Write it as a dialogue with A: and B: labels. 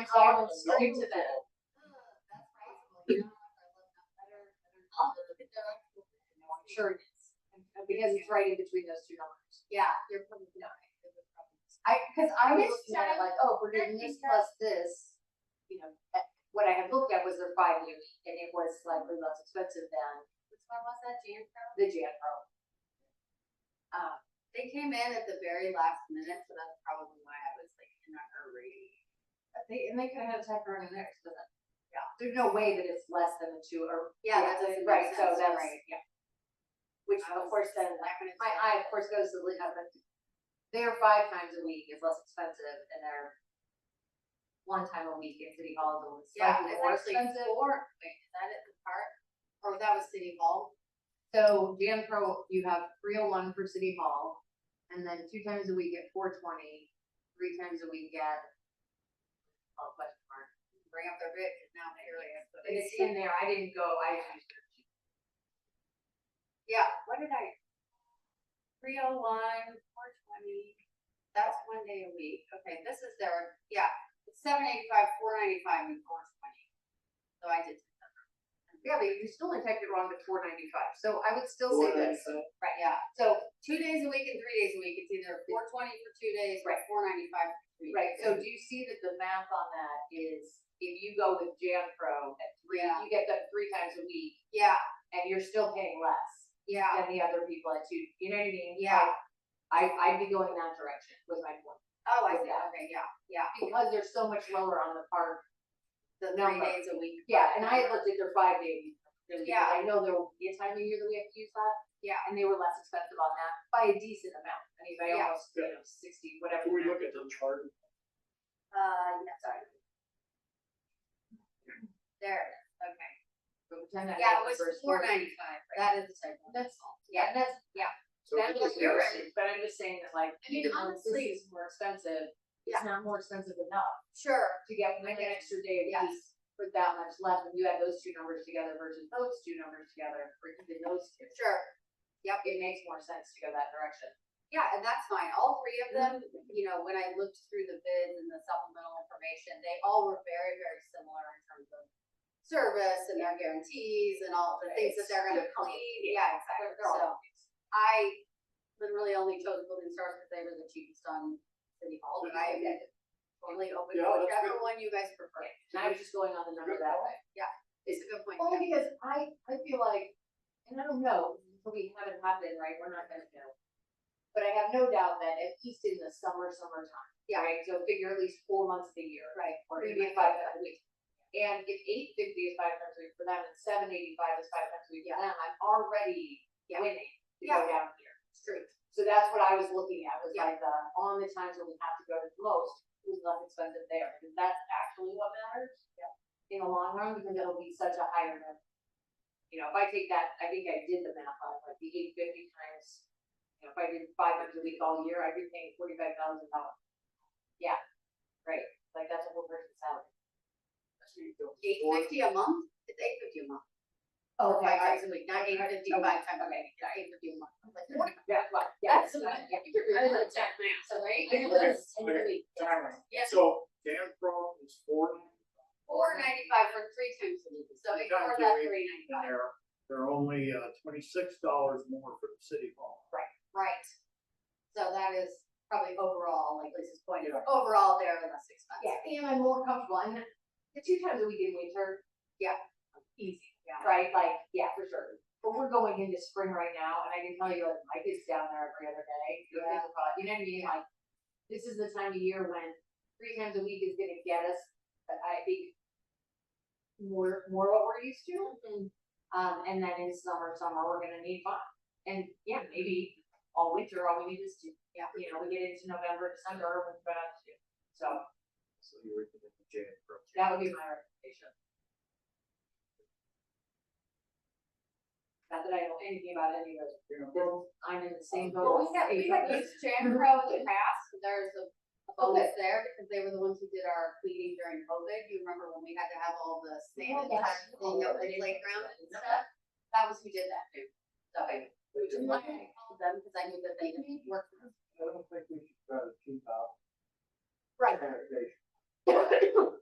A: I'll stick to that.
B: Oh,
A: I'll look at their actual- no, I'm Sure it is, because it's right in between those two numbers.
B: Yeah, you're probably not.
A: I, cause I was
B: This
A: looking at it
B: time,
A: like, oh, we're doing this plus this, you know, eh, what I had looked at was their five year, and it was slightly less expensive than
B: Which one was that, Jan Pro?
A: the Um, Janpro.
B: Uh, they came in at the very last minute, so that's probably why I was like in a hurry.
A: But They, and they could have had a tech run in there, so that, yeah, there's no way that it's less than the two or.
B: Yeah, that doesn't make
A: Right, so
B: sense,
A: that's,
B: right.
A: yeah. Which
B: I
A: of
B: was
A: course then,
B: just not gonna
A: my
B: say
A: eye
B: that.
A: of course goes to the, but their five times a week is less expensive and their one time a week at City Hall is always
B: Yeah,
A: slightly
B: it's
A: more
B: actually
A: expensive.
B: four, wait, is that at the park? Or that was City Hall?
A: So Jan Pro, you have three oh one for City Hall, and then two times a week at four twenty, three times a week at. Oh, question mark.
B: Bring up their bid, 'cause now they really have.
A: And It's in there, I didn't go, I.
B: Yeah, what did I? Three oh one, four twenty, that's one day a week, okay, this is their, yeah, it's seven eighty-five, four ninety-five, and four twenty. So I did.
A: Yeah, but you still only typed it wrong to four ninety-five, so I would still say this,
B: Right, yeah,
A: so,
B: two days a week and three days a week, it's either four twenty for two days or
A: Right.
B: four ninety-five for three.
A: right,
B: days.
A: so do you see that the math on that is, if you go with Jan Pro at three,
B: Yeah.
A: you get them three times a week,
B: Yeah,
A: and you're still paying less
B: yeah,
A: than the other people at two, you know what I mean?
B: Yeah.
A: I, I'd be going that direction, was my point,
B: oh, I
A: With
B: see,
A: that.
B: okay, yeah, yeah,
A: because they're so much lower on the park
B: the
A: No,
B: three
A: but-
B: days a week.
A: Yeah, and I had looked at their five day. because
B: Yeah.
A: I know there will be a time of year that we have to use that.
B: Yeah.
A: And they were less expensive on that by a decent amount. I mean, by
B: Yeah.
A: almost, you know, sixty, whatever.
C: Can we
A: amount.
C: look at the chart?
B: Uh, yeah,
A: Sorry.
B: there, it is. okay,
A: But pretend I
B: yeah,
A: had
B: it
A: the
B: was
A: first
B: four
A: word.
B: ninety-five, that is the type one.
A: That's, yeah, that's, yeah,
C: So
A: that's
C: if
A: what
C: it's
A: you're
C: less-
A: right, but I'm just saying that like,
B: I mean,
A: even though
B: honestly-
A: this is more expensive,
B: Yeah.
A: it's not more expensive enough
B: Sure,
A: to get one
B: Okay.
A: extra day of
B: Yes.
A: peace for that much less, when you add those two numbers together versus those two numbers together, or even those two.
B: sure.
A: It makes more sense to go that direction.
B: Yeah, and that's fine. All three of them, you know, when I looked through the bids and the supplemental information, they all were very, very similar in terms of service and their guarantees and all the things that they're gonna
A: It's-
B: clean. Yeah, exactly.
A: They're- they're all
B: So I literally only chose building stars because they were the cheapest on City Hall, but I am totally open to
C: Yeah, that's
B: whichever one you guys prefer.
A: And I was just going on the number that way.
B: It's a good point.
A: Only because I, I feel like, and I don't know, until we haven't happened, right, we're not gonna know. But I have no doubt that at least in the summer, summertime,
B: Yeah.
A: right, so figure at least four months of the year.
B: Right.
A: Or
B: Three
A: maybe
B: months.
A: five times a week. And if eight fifty is five times a week for them and seven eighty-five is five times a week for them, I'm already
B: Yeah.
A: winning to go
B: Yeah.
A: down here.
B: It's true.
A: So that's what I was looking at, was
B: Yeah.
A: like, the, on the times when we have to go to the most, who's less expensive there, because that's actually what matters. In the long run, because it'll be such a higher number. You know, if I take that, I think I did the math on like the eight fifty times, you know, if I did five hundred a week all year, I'd be paying forty-five thousand dollars. Yeah, right, like that's a whole person's salary.
B: Eight fifty a month? It's eight fifty a month.
A: Oh,
B: Five times a week, not eight
A: Okay.
B: fifty five times a week, not eight fifty a month. I'm like, what?
A: Yeah, well, yeah.
B: That's what I-
A: yeah.
B: I was like, check now, so right?
A: I was-
C: Okay, timeline.
B: Yes.
C: So Dan Pro is four
B: Four ninety-five for three times a week, so
C: Three
B: ignore
C: times a
B: that
C: week.
B: three
C: and
B: ninety-five,
C: they're, they're only uh, twenty-six dollars more for the city hall.
B: right? So that is probably overall, like Lisa's point,
C: Yeah.
B: overall they're less expensive.
A: Yeah, and I'm more comfortable, and the two times a week in winter.
B: Yeah.
A: Easy,
B: Yeah.
A: right, like, yeah, for sure, but we're going into spring right now, and I can tell you, like, my kid's down there every other day. You know,
B: Yeah.
A: you know what I mean, like, this is the time of year when three times a week is gonna get us, but I think. More, more what we're used to, um, and then in summer, summer, we're gonna need five, and yeah, maybe all winter, all we need is two.
B: Yeah.
A: You know, we get into November, December, we're about to, so
C: So you were thinking Dan Pro.
A: that would be my recommendation. Not that I know anything about any of those,
C: Dan Pro,
A: I'm in the same boat.
B: Well, we have, we have used Jan Pro in the past, there's a a bonus there, because they were the ones who did our cleaning during COVID, you remember when we had to have all the sand and
A: yes.
B: everything at the playground and stuff? That was who did that too, so I,
C: they
B: which is
C: did-
B: why I called them, because I knew that they didn't work for us.
C: I don't think we should try to keep out.
A: Right.
C: sanitation.